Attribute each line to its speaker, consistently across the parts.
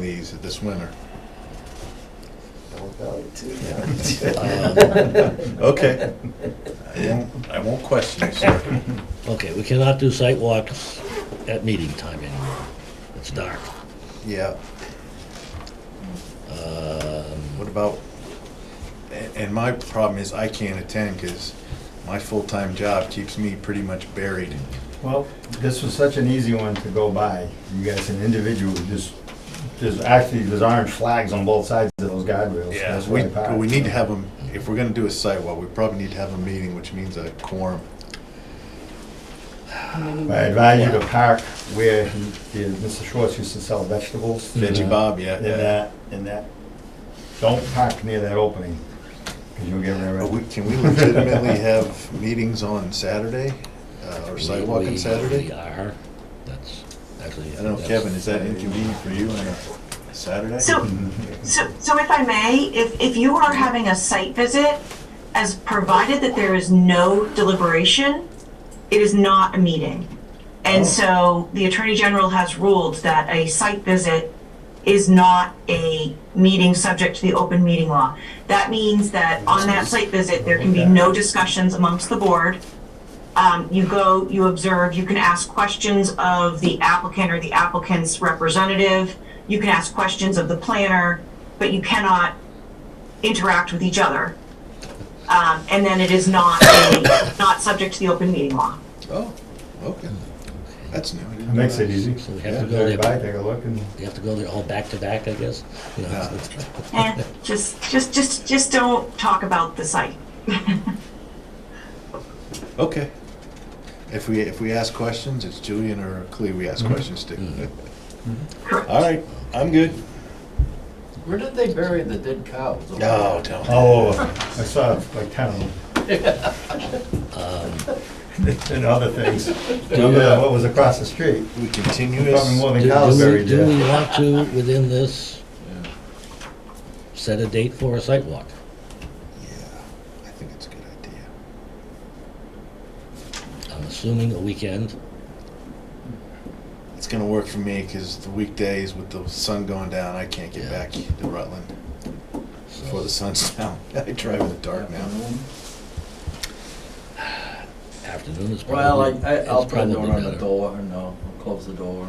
Speaker 1: days this winter.
Speaker 2: Don't doubt it
Speaker 1: Um,
Speaker 2: too.
Speaker 1: okay. I won't, I won't question you, sir.
Speaker 3: Okay, we cannot do site walks at meeting time anymore. It's dark.
Speaker 1: Yeah, Um,
Speaker 3: Um,
Speaker 1: what about, a- and my problem is I can't attend because my full-time job keeps me pretty much buried.
Speaker 4: Well, this was such an easy one to go by. You guys, an individual, just, there's actually, there's orange flags on both sides of those guardrails. That's
Speaker 1: We,
Speaker 4: why I parked.
Speaker 1: we need to have them, if we're gonna do a sidewalk, we probably need to have a meeting, which means a quorum.
Speaker 4: I advise you to park where he- the- Mr. Schwartz used to sell vegetables.
Speaker 1: Veggie Bob, yeah,
Speaker 4: In
Speaker 1: yeah.
Speaker 4: that, in that, don't park near that opening, because you'll get
Speaker 1: Are Oh, we-
Speaker 4: rear-ended.
Speaker 1: Can we legitimately have meetings on Saturday uh, or
Speaker 3: we-
Speaker 1: sidewalk on
Speaker 3: we-
Speaker 1: Saturday?
Speaker 3: We are, that's actually.
Speaker 1: I don't know,
Speaker 3: that's-
Speaker 1: Kevin, is that inconvenient for you on a Saturday?
Speaker 5: So, so, so if I may, if, if you are having a site visit, as provided that there is no deliberation, it is not a meeting. And so the Attorney General has ruled that a site visit is not a meeting subject to the open meeting law. That means that on that site visit, there can be no discussions amongst the board. Um, you go, you observe, you can ask questions of the applicant or the applicant's representative. You can ask questions of the planner, but you cannot interact with each other. Um, and then it is not, a- not subject to the open meeting law.
Speaker 1: Oh, okay. That's new. I didn't
Speaker 4: Makes it
Speaker 1: realize.
Speaker 4: easy.
Speaker 3: So we have
Speaker 4: Yeah,
Speaker 3: to go
Speaker 4: drive by,
Speaker 3: there,
Speaker 4: take a look, and
Speaker 3: you have to go there all back to back, I guess? You know,
Speaker 1: Yeah.
Speaker 3: it's-
Speaker 5: Eh, just, just, just, just don't talk about the site.
Speaker 1: Okay. If we, if we ask questions, it's Julian or Clea we
Speaker 4: Mm-hmm.
Speaker 1: ask questions to.
Speaker 5: Correct.
Speaker 1: All right, I'm good.
Speaker 6: Where did they bury the dead cows?
Speaker 1: No, don't.
Speaker 4: all over. Oh, I saw like ten of them. And other things. Remember what was across the street?
Speaker 1: We continue
Speaker 4: Probably
Speaker 1: this.
Speaker 4: more
Speaker 3: Do
Speaker 4: than cows
Speaker 3: do we,
Speaker 4: buried
Speaker 3: do
Speaker 4: there.
Speaker 3: we want to, within this, set a date for a site walk?
Speaker 1: I think it's a good idea.
Speaker 3: I'm assuming a weekend.
Speaker 1: It's gonna work for me, cause the weekdays with the sun going down, I can't get
Speaker 3: Yeah.
Speaker 1: back to Rutland
Speaker 3: so-
Speaker 1: before the sun's down. I drive in the dark now.
Speaker 3: Mm-hmm. Afternoon is probably.
Speaker 6: Well, I, I- I'll
Speaker 3: it's
Speaker 6: put
Speaker 3: probably
Speaker 6: a door on the
Speaker 3: better.
Speaker 6: door, no, I'll close the door.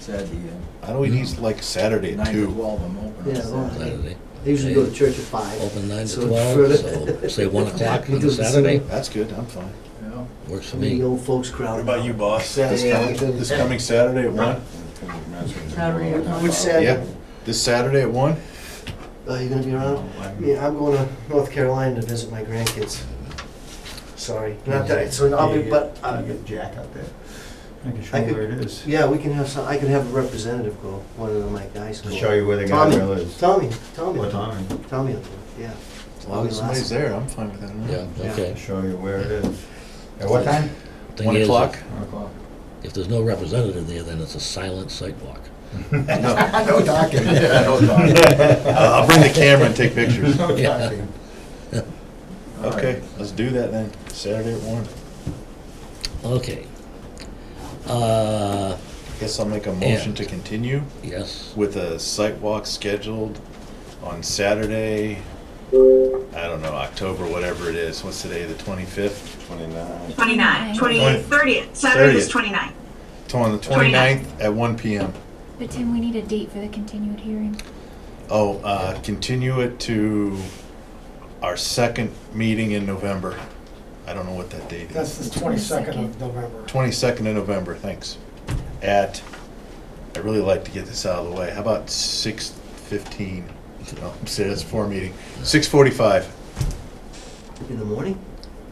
Speaker 6: Saturday,
Speaker 1: I know it
Speaker 4: Mm-hmm.
Speaker 1: is like
Speaker 6: uh,
Speaker 1: Saturday at
Speaker 6: nine to
Speaker 1: two.
Speaker 6: twelve, I'm open.
Speaker 2: Yeah, well,
Speaker 3: Saturday.
Speaker 2: They usually go to church at five.
Speaker 3: Open nine to
Speaker 2: So
Speaker 3: twelve,
Speaker 2: further-
Speaker 3: so say one o'clock on
Speaker 2: Because the
Speaker 3: Saturday,
Speaker 2: sooner-
Speaker 1: That's good, I'm fine.
Speaker 6: Yeah.
Speaker 3: works for
Speaker 2: I mean,
Speaker 3: me.
Speaker 2: the old folks crowd.
Speaker 1: boss? This
Speaker 2: Saturday at
Speaker 1: coming,
Speaker 2: two.
Speaker 1: this coming Saturday at one?
Speaker 2: Which
Speaker 1: Yeah,
Speaker 2: Saturday?
Speaker 1: this Saturday at one?
Speaker 2: Are Oh, you gonna be around?
Speaker 1: Oh,
Speaker 2: Yeah, I'm going to North Carolina to visit my grandkids. Sorry, not that, so I'll be, but, uh,
Speaker 4: Can you get Jack out there? I can show
Speaker 2: I
Speaker 4: you
Speaker 2: could-
Speaker 4: where it is.
Speaker 2: yeah, we can have some, I can have a representative go, one of my guys go.
Speaker 4: To show you where the
Speaker 2: Tommy,
Speaker 4: guardrail is.
Speaker 2: Tommy, Tommy,
Speaker 4: What time?
Speaker 2: Tommy, will do it, yeah.
Speaker 1: As long as somebody's there, I'm fine with that.
Speaker 3: Yeah,
Speaker 2: Yeah.
Speaker 3: okay.
Speaker 4: To show you where it is. At what time?
Speaker 3: Thing
Speaker 1: One
Speaker 3: is,
Speaker 1: o'clock?
Speaker 4: One o'clock.
Speaker 3: if- If there's no representative there, then it's a silent site walk.
Speaker 4: No talking.
Speaker 6: No talking.
Speaker 1: I'll bring the camera and take pictures.
Speaker 4: No
Speaker 3: Yeah.
Speaker 4: talking.
Speaker 6: All right.
Speaker 1: Okay, let's do that then, Saturday at one.
Speaker 3: Okay. Uh,
Speaker 1: Guess I'll make a motion
Speaker 3: And-
Speaker 1: to continue
Speaker 3: yes,
Speaker 1: with a site walk scheduled on Saturday, I don't know, October, whatever it is, what's today, the twenty-fifth? Twenty-nine.
Speaker 5: 29, 20,
Speaker 1: Twenty.
Speaker 5: 30th, Saturday is
Speaker 1: 30th.
Speaker 5: 29.
Speaker 1: On the 29th at one PM.
Speaker 7: But Tim, we need a date for the continued hearing.
Speaker 1: Oh, uh, continue it to our second meeting in November. I don't know what that date
Speaker 8: That's
Speaker 1: is.
Speaker 8: the twenty-second of November.
Speaker 1: Twenty-second of November, thanks. At, I really like to get this out of the way, how about six fifteen? No, I'm saying that's four meeting, six forty-five.
Speaker 2: In the morning?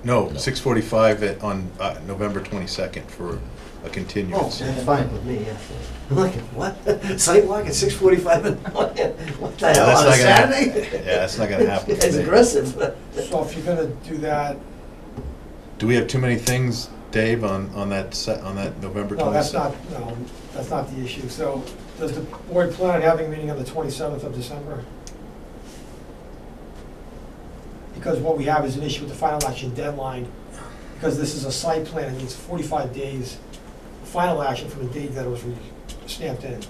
Speaker 1: No, six forty-five at, on, uh, November twenty-second for a
Speaker 2: Oh,
Speaker 1: continuance.
Speaker 2: that's fine with me, yeah. I'm like, what? Sidewalk at six forty-five in the morning? What the hell,
Speaker 1: That's
Speaker 2: on a
Speaker 1: not gonna hap-
Speaker 2: Saturday?
Speaker 1: Yeah, that's not gonna happen.
Speaker 2: It's
Speaker 1: today.
Speaker 2: aggressive.
Speaker 8: So if you're gonna do that,
Speaker 1: Do we have too many things, Dave, on, on that, se- on that November
Speaker 8: no, that's not,
Speaker 1: twenty-second?
Speaker 8: no, that's not the issue. So does the board plan on having a meeting on the twenty-seventh of December? Because what we have is an issue with the final action deadline, because this is a site plan, it needs forty-five days, final action from the date that it was re- stamped in.